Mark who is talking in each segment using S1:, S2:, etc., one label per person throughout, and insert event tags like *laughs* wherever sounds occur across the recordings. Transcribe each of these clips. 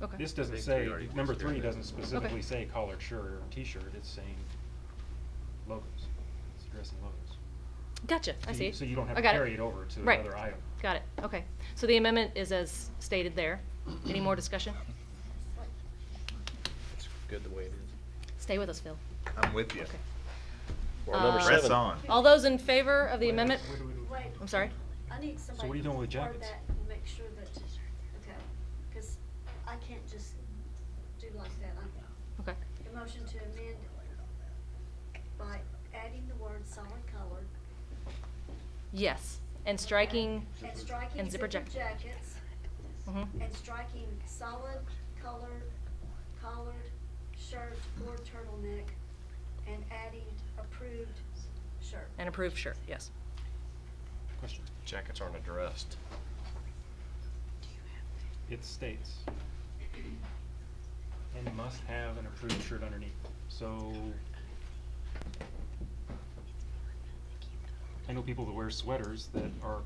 S1: Okay.
S2: This doesn't
S3: think
S2: say,
S3: three already
S2: number
S3: disappeared
S2: three
S3: then.
S2: doesn't specifically say collared shirt or t-shirt, it's saying logos. It's addressing logos.
S1: Gotcha, I
S2: So you-
S1: see.
S2: So you don't have
S1: I
S2: to
S1: got
S2: carry it over to
S1: Right.
S2: another item.
S1: Got it, okay. So the amendment is as stated there. Any more discussion?
S3: It's good the way it is.
S1: Stay with us, Phil.
S4: I'm with you.
S1: Okay.
S3: Well, number
S1: Uh,
S3: seven.
S4: Press on.
S1: All those in favor of the amendment?
S5: Wait,
S1: I'm sorry?
S5: I need somebody.
S2: what are you doing with
S5: to forward
S2: jackets?
S5: that and Make sure that, okay, because I can't just do like that. I-
S1: Okay.
S5: The motion to amend by adding the word solid colored
S1: Yes, and striking,
S5: and striking
S1: And zipper
S5: zipper
S1: jack-
S5: jackets
S1: mhm,
S5: and striking solid colored collared shirt or turtleneck and adding approved shirt.
S1: and approved sure. yes.
S2: Question.
S3: Jackets aren't addressed.
S2: It states, and must have an approved shirt underneath, so. I know people that wear sweaters that are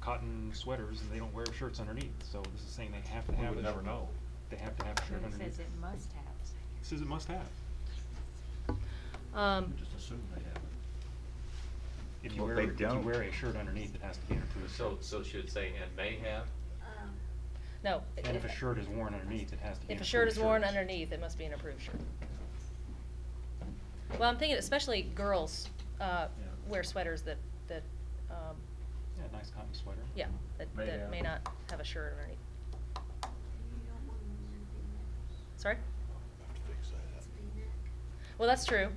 S2: cotton sweaters and they don't wear shirts underneath, so this is saying they have to
S3: We
S2: have.
S3: would
S2: a-
S3: never know.
S2: They have to have a shirt
S6: It
S2: underneath.
S6: says it must have.
S2: It Says it must have.
S1: Um,
S2: If you
S4: Well,
S2: wear,
S4: they
S2: if you
S4: don't.
S2: wear a shirt underneath, it has to be an approved
S7: So,
S2: shirt.
S7: so should it say, and may have?
S5: Um,
S1: no.
S2: And if a shirt is worn underneath, it has to be an
S1: If a
S2: approved
S1: shirt
S2: shirt.
S1: is worn underneath, it must be an approved shirt. Well, I'm thinking especially girls,
S2: Yeah.
S1: uh, wear sweaters that, that, um,
S2: Yeah, nice cotton sweater.
S1: yeah, that,
S2: May
S1: that
S2: have.
S1: may not have a shirt underneath.
S5: you don't want to
S1: Sorry?
S5: It's V-neck.
S1: Well, that's true.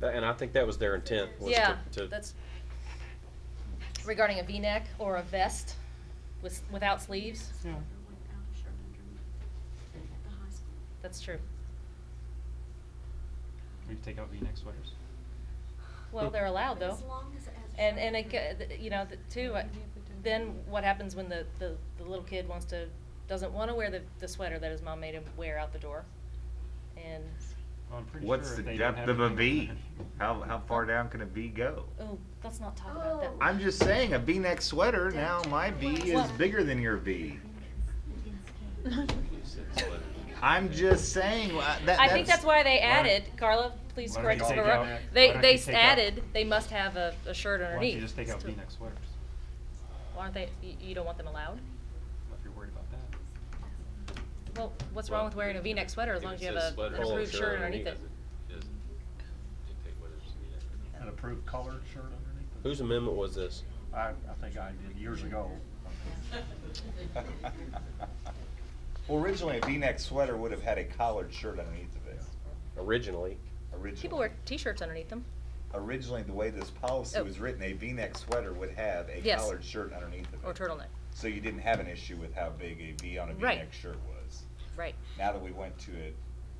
S3: That- And I think that was their intent, was
S1: Yeah,
S3: to- to.
S1: that's regarding a V-neck or a vest with, without sleeves.
S2: Yeah.
S5: without a shirt underneath at the high school.
S1: That's true.
S2: We could take out V-neck sweaters.
S1: Well, they're allowed though.
S5: As long as it has a
S1: And,
S5: shirt
S1: and it,
S5: underneath.
S1: g- th- you know, th- too, I- then what happens when the, the, the little kid wants to, doesn't wanna wear the, the sweater that his mom made him wear out the door? And,
S2: Well, I'm pretty sure
S4: What's
S2: if
S4: the
S2: they don't
S4: depth
S2: have
S4: of a
S2: anything
S4: V? How, how far down can a V go?
S1: oh, let's not talk about that.
S5: Oh.
S4: I'm just saying, a V-neck sweater, now my V is
S1: Well-
S4: bigger than your V. I'm just saying, wha- that, that's.
S1: I think that's why they
S4: *laughs*
S2: why-
S1: added, Carla, please
S2: why don't
S1: correct
S2: you
S1: us if
S2: take
S1: we're wrong.
S2: out- why
S1: They,
S2: don't
S1: they
S2: you
S1: s-
S2: take out-
S1: added, they must have a, a shirt
S2: Why
S1: underneath.
S2: don't you just take out
S1: to-
S2: V-neck sweaters?
S1: Why aren't they, you, you don't want them allowed?
S2: If you're worried about that.
S1: Well, what's wrong with wearing a V-neck sweater as long as you have a, an
S3: sweater,
S1: approved
S3: sure,
S1: shirt underneath it?
S8: an approved colored shirt underneath it?
S3: Whose amendment was this?
S8: I, I think I did years ago.
S4: Well, originally, a V-neck sweater would have had a collared shirt underneath of it,
S3: Originally,
S4: originally.
S1: People wear t-shirts underneath them.
S4: Originally, the way this policy
S1: Oh.
S4: was written, a V-neck sweater would have a
S1: Yes.
S4: collared shirt underneath of it.
S1: Or turtleneck,
S4: So you didn't have an issue with how big a V on a
S1: Right.
S4: V-neck shirt was.
S1: right.
S4: Now that we went to a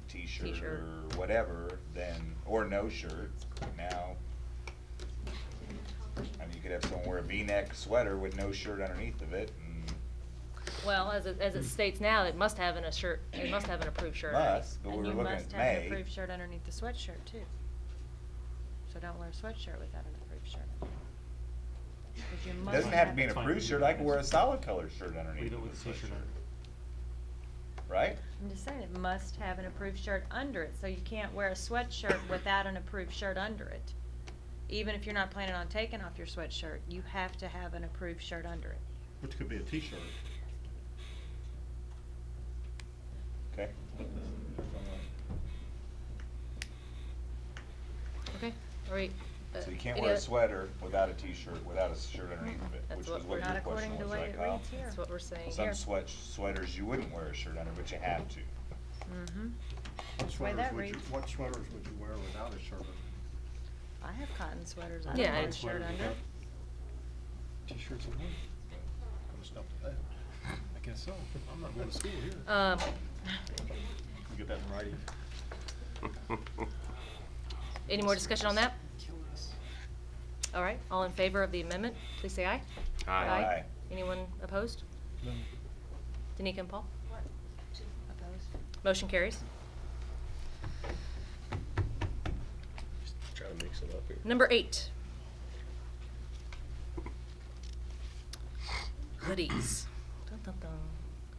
S4: t-shirt,
S1: T-shirt.
S4: or whatever, then or no shirt. Now, I mean, you could have someone wear a V-neck sweater with no shirt underneath of it, and
S1: Well, as it, as it states now, it must have an a shirt, it must have an approved shirt. underneath.
S4: must. But we were looking at
S6: And you must have an
S4: May.
S6: approved shirt underneath the sweatshirt too. So don't wear a sweatshirt without an approved shirt. But you
S4: It
S6: must
S4: doesn't have to be an
S2: Fine.
S4: approved shirt. I can wear a solid colored shirt underneath.
S2: Leave it
S4: of
S2: with a
S4: the
S2: t-shirt
S4: sweatshirt,
S2: under.
S4: right?
S6: I'm just saying, it must have an approved shirt under it, so you can't wear a sweatshirt without an approved shirt under it. Even if you're not planning on taking off your sweatshirt, you have to have an approved shirt under it.
S8: Which could be a t-shirt.
S4: Okay.
S1: Okay, all right. uh,
S4: So you can't
S1: any
S4: wear a
S1: other-
S4: sweater without a t-shirt, without a shirt underneath of it,
S1: That's
S4: which
S1: what
S4: was
S1: we're-
S4: what
S6: Not
S4: your
S6: according to
S4: question
S6: the
S4: was,
S6: way
S4: right,
S6: it
S4: Kyle?
S6: reads here.
S1: That's what we're saying
S4: Some
S1: here.
S4: sweat sweaters you wouldn't wear a shirt under, but you have to.
S6: Mm-hmm.
S8: What
S6: way
S8: sweaters
S6: that
S8: would you,
S6: reads.
S8: what sweaters would you wear without a shirt underneath?
S6: I have cotton sweaters. I
S1: Yeah,
S6: don't wear
S1: I-
S6: a shirt under. it.
S2: T-shirts and hoodies.
S8: Kind of stuff like that.
S2: I guess so. I'm not going to school here.
S1: Um,
S8: Can we get that in writing?
S1: any more discussion on that? All right, all in favor of the amendment, please say aye.
S4: Aye.
S1: Anyone opposed? Danica and Paul?
S5: What, to,
S1: Motion carries.
S3: try to mix it up here.
S1: Number eight. Hoodies. Dun, dun, dun.